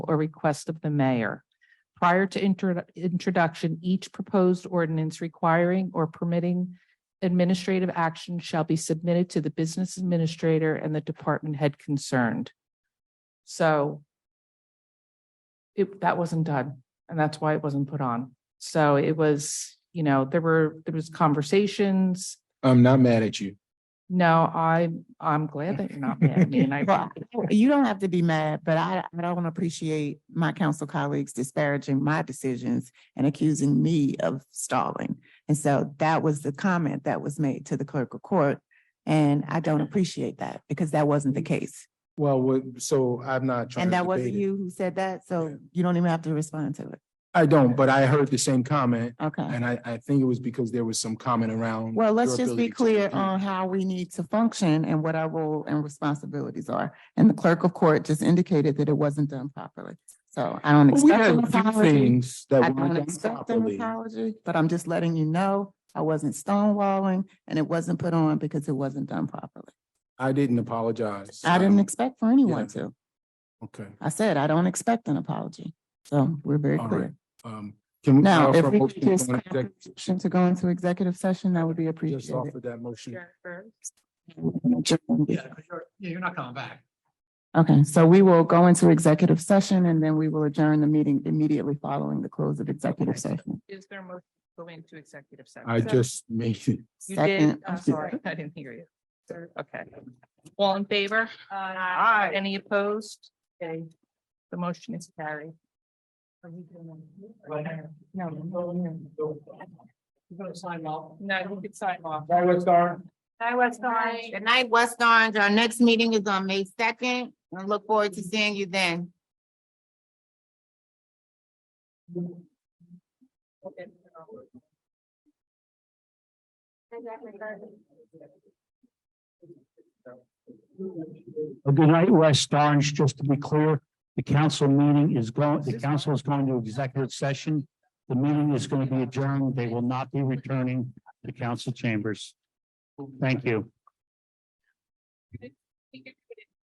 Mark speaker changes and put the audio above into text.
Speaker 1: or request of the mayor. Prior to intro- introduction, each proposed ordinance requiring or permitting administrative action shall be submitted to the business administrator and the department head concerned. So it, that wasn't done, and that's why it wasn't put on. So it was, you know, there were, there was conversations.
Speaker 2: I'm not mad at you.
Speaker 1: No, I, I'm glad that you're not mad at me and I,
Speaker 3: Well, You don't have to be mad, but I, I don't appreciate my council colleagues disparaging my decisions and accusing me of stalling. And so that was the comment that was made to the clerk of court. And I don't appreciate that because that wasn't the case.
Speaker 2: Well, what- so I'm not Mm. trying.
Speaker 3: And
Speaker 2: to
Speaker 3: that wasn't
Speaker 2: debate it.
Speaker 3: you who said that, so you don't even have to respond to it.
Speaker 2: I don't, but I heard the same comment
Speaker 3: Okay.
Speaker 2: and I, I think it was because there was some comment around.
Speaker 3: Well,
Speaker 2: your
Speaker 3: let's just
Speaker 2: ability
Speaker 3: be
Speaker 2: to
Speaker 3: clear um,
Speaker 2: compete.
Speaker 3: on how we need to function and what our role and responsibilities are. And the clerk of court just indicated that it wasn't done properly. So I don't
Speaker 2: Well, We
Speaker 3: expect
Speaker 2: had
Speaker 3: an
Speaker 2: a few
Speaker 3: apology.
Speaker 2: things that
Speaker 3: I
Speaker 2: weren't
Speaker 3: don't
Speaker 2: done
Speaker 3: expect an
Speaker 2: properly.
Speaker 3: apology, but I'm just letting you know I wasn't stonewalling and it wasn't put on because it wasn't done properly.
Speaker 2: I didn't apologize.
Speaker 3: I didn't expect for anyone to.
Speaker 2: Okay,
Speaker 3: I said, I don't expect an apology. So we're very
Speaker 2: All
Speaker 3: clear.
Speaker 2: right. um, can we?
Speaker 3: Now,
Speaker 2: offer
Speaker 3: if
Speaker 2: a
Speaker 3: we
Speaker 2: motion
Speaker 3: could just
Speaker 2: on exec-
Speaker 3: motion to go into executive session, that would be
Speaker 2: Just
Speaker 3: appreciated.
Speaker 2: offer that motion.
Speaker 4: Yeah, you're, yeah, you're not coming back.
Speaker 3: Okay, so we will go into executive session and then we will adjourn the meeting immediately following the close of executive session.
Speaker 1: is there a motion to go into executive session?
Speaker 2: I just made it.
Speaker 1: You did,
Speaker 3: Second.
Speaker 1: I'm sorry, I didn't hear you. Okay. All in favor? Aye. Any opposed? Okay, the motion is carried.
Speaker 4: You're gonna sign off.
Speaker 1: No, you can sign off.
Speaker 4: Hi, West Star.
Speaker 5: Hi, West Orange.
Speaker 3: Good night, West Orange. Our next meeting is on May second. I look forward to seeing you then.
Speaker 4: Good night, West Orange. Just to be clear, the council meeting is going, the council is going to executive session. The meeting is going to be adjourned. They will not be returning to council chambers. Thank you.
Speaker 1: You can